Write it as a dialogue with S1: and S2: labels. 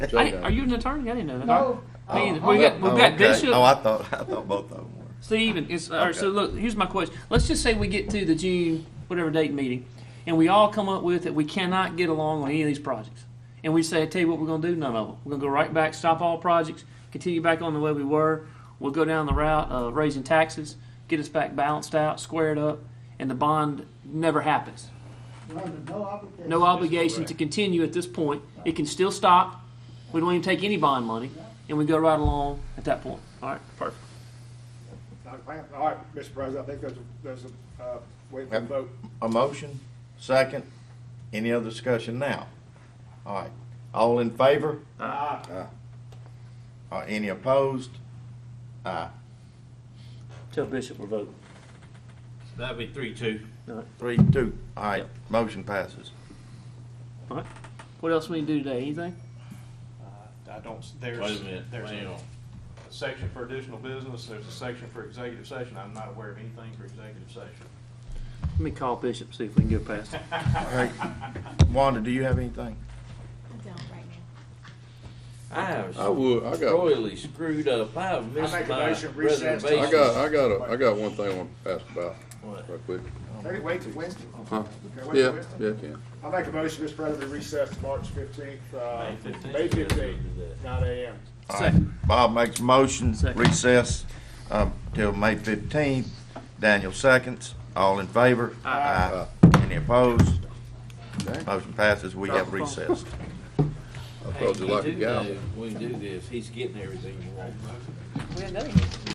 S1: I
S2: Joe
S1: didn't-
S2: does.
S1: are you an attorney? I didn't know that.
S3: No.
S1: Me either.
S3: Oh,
S1: We got,
S3: oh,
S1: we've
S2: Oh,
S1: got
S2: okay.
S1: Bishop,
S2: Oh, I thought I thought both of them were.
S1: Stephen. It's all right, so
S2: Okay.
S1: look. Here's my question. Let's just say we get to the June whatever date meeting, and we all come up with that we cannot get along on any of these projects, and we say, I tell you what, we're going to do none of them. We're going to go right back, stop all projects, continue back on the way we were. We'll go down the route of raising taxes, get us back balanced out, squared up, and the bond never happens.
S3: We're under no obligation.
S1: no obligation to
S2: correct.
S1: continue at this point. It can still stop. We don't even take any bond money, and we go right along at that point. All right, perfect.
S4: All right, Mr. President, I think there's, a- there's a, uh, way to
S2: Yep.
S4: vote.
S2: A motion, second, any other discussion now? All right, all in favor?
S4: Ah,
S2: Uh, any opposed? Aye,
S1: Tell Bishop we're voting.
S5: That'd be three, two.
S2: three, two, all right, motion passes.
S1: All right. What else we need to do today? Anything?
S6: I don't,
S5: Wait
S6: there's,
S5: a minute,
S6: there's
S5: hang
S6: a
S5: on.
S6: section for additional business, there's a section for executive session, I'm not aware of anything for executive session.
S1: Let me call Bishop see if we can get past it.
S2: All right, Wanda, do you have anything?
S7: I don't right now.
S5: I have
S8: I would. Oh, I got.
S5: royally screwed up. I have missed
S4: make a
S5: my
S4: motion, recess.
S5: reservations.
S8: I got. I got. A, I got one thing I want to ask about
S5: What?
S8: right quick.
S4: can it wait till Wednesday? Can
S8: Huh?
S4: it wait till
S8: Uh-huh. Yeah.
S4: Wednesday?
S8: Yeah. it Can.
S4: I make a motion, Mr. President, to recess to March fifteenth, uh,
S5: May 15th.
S4: May fifteenth, nine AM.
S2: All right, Bob makes a motion, recess, um, till May fifteenth, Daniel seconds, all in favor? Aye. Any opposed? Motion passes, we have recessed.
S8: I told you like a guy.
S5: We do this, he's getting everything he wants.
S1: We had